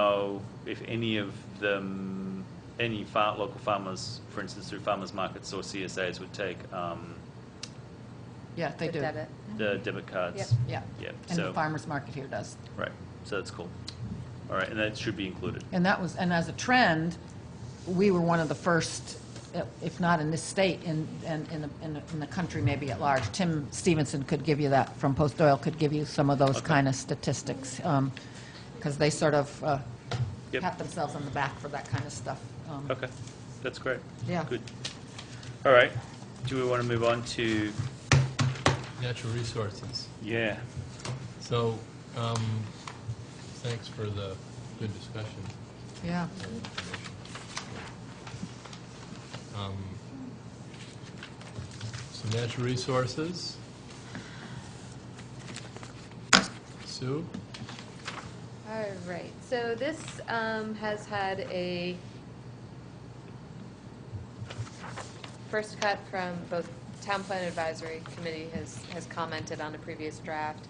know if any of them, any far, local farmers, for instance, through farmers markets or CSAs would take um, Yeah, they The do. debit. the debit cards. Yep. Yeah. Yep, Mm-hmm. And the so- farmer's market here does. Right, so that's cool. All right, and that should be included. And that was, and as a trend, we were one of the first, eh, if not in this state, in, in, in the, in the- in the country maybe at large. Tim Stevenson could give you that, from Post Oil could give you some of those Okay. kind of statistics, because they sort of uh, Yep. pat themselves on the back for that kind of stuff. Um, Okay, that's great. Yeah. Good. All right, do we want to move on to, Natural resources. yeah, So, um, thanks for the good discussion. Yeah. and information. Um, So natural resources. Sue? All right, so this um, has had a first cut from both Town Plan Advisory Committee has, has commented on a previous draft.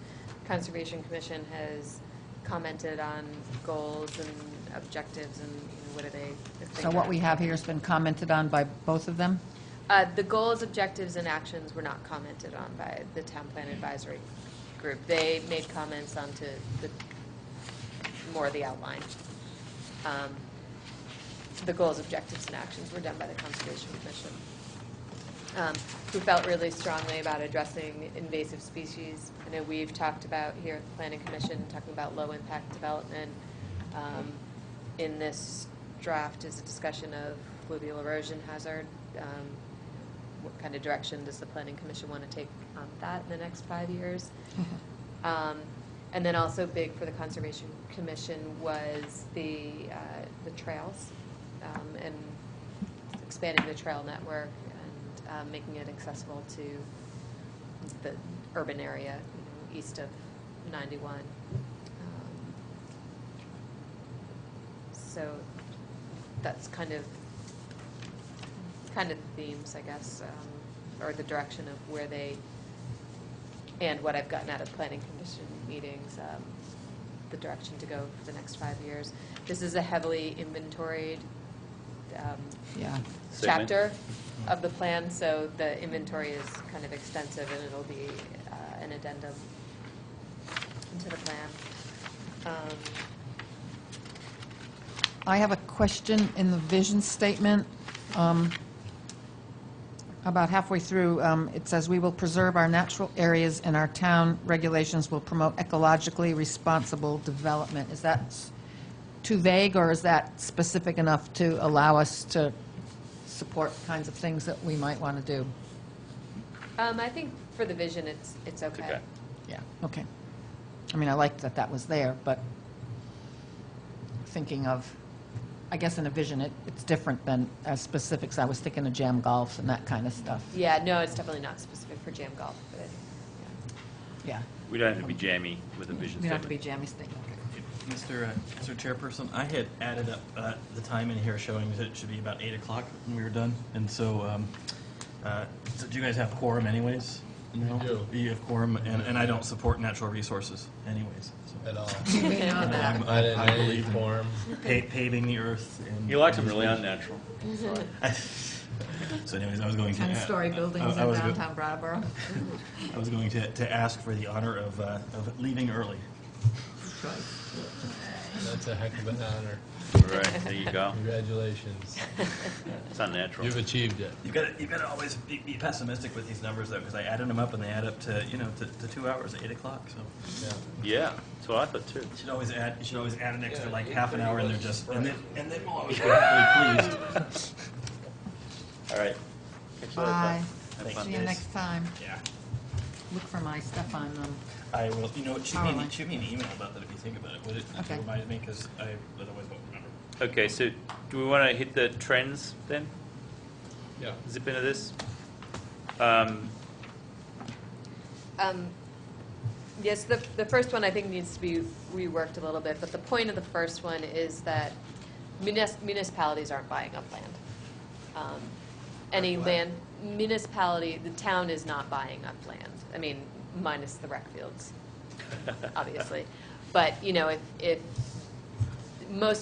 Conservation Commission has commented on goals and objectives and you know, what are they? if they So what we have here has been commented on by both of them? Uh, The goals, objectives, and actions were not commented on by the town plan advisory group. They made comments onto the, more the outline. Um, The goals, objectives, and actions were done by the Conservation Commission, um, who felt really strongly about addressing invasive species. I know we've talked about here at the Planning Commission, talking about low-impact development. Um, In this draft is a discussion of fluvial erosion hazard, um, what kind of direction does the planning commission want to take on that in the next five years? Um, And then also big for the conservation commission was the, uh, the trails um, and expanding the trail network and uh, making it accessible to the urban area, you know, east of 91. Um, So that's kind of kind of the themes, I guess, um, or the direction of where they, and what I've gotten out of planning commission meetings, um, the direction to go for the next five years. This is a heavily inventoried um, Yeah. Segment. chapter of the plan, so the inventory is kind of extensive, and it'll be uh, an addendum into the plan. Um, I have a question in the vision statement. um, About halfway through, um, it says, "We will preserve our natural areas and our town regulations will promote ecologically responsible development." Is that s- too vague, or is that specific enough to allow us to support kinds of things that we might want to do? um, I think for the vision, it's, it's okay. okay. Yeah. Okay. I mean, I liked that that was there, but thinking of, I guess in a vision, it, it's different than as specifics. I was thinking of jam golf and that kind of stuff. Yeah, no, it's definitely not specific for jam golf, but I think, yeah. Yeah. we don't have to be jammy with a vision We don't have to be statement. jammy statement. Mr. uh, Mr. Chairperson, I had added up uh, the time in here showing that it should be about 8 o'clock when we were done, and so, um, uh, so do you guys have quorum anyways? No? We do. You have quorum, and and I don't support natural resources anyways. so. At all. We know that. I didn't I any believe in- form. Pa- Paving the earth and... You liked them really unnatural. So anyways, I was going to... Ten-story I- I- buildings I in was go- downtown Brattleboro. I was going to to ask for the honor of uh, of leaving early. That's a heck of an honor. Right, there you go. Congratulations. It's unnatural. You've achieved it. You've got to, you've got to always be, be pessimistic with these numbers, though, because I added them up and they add up to, you know, to, to two hours, eight o'clock. So Yeah. Yeah, that's what I thought too. you should always add, you should always add an extra Yeah, like eight half an thirty hour, and they're was just, right. and then, and then we'll always be happily pleased. All right. Catch you later, bud. Bye. Have Thanks. fun. See you next time. Yeah, Look for my stuff on, um, I will. You know, what, shoot me, an- e, Alright. shoot me an email about that if you think about it. Would it Okay. remind me? Because I otherwise won't remember. Okay, so do we want to hit the trends then? Yeah. Zip into this? Um, Um, Yes, the, the first one I think needs to be reworked a little bit, but the point of the first one is that munis- municipalities aren't buying up land. Um, Any land, municipality, the town is not buying up land. I mean, minus the rec fields, obviously. But, you know, if, if most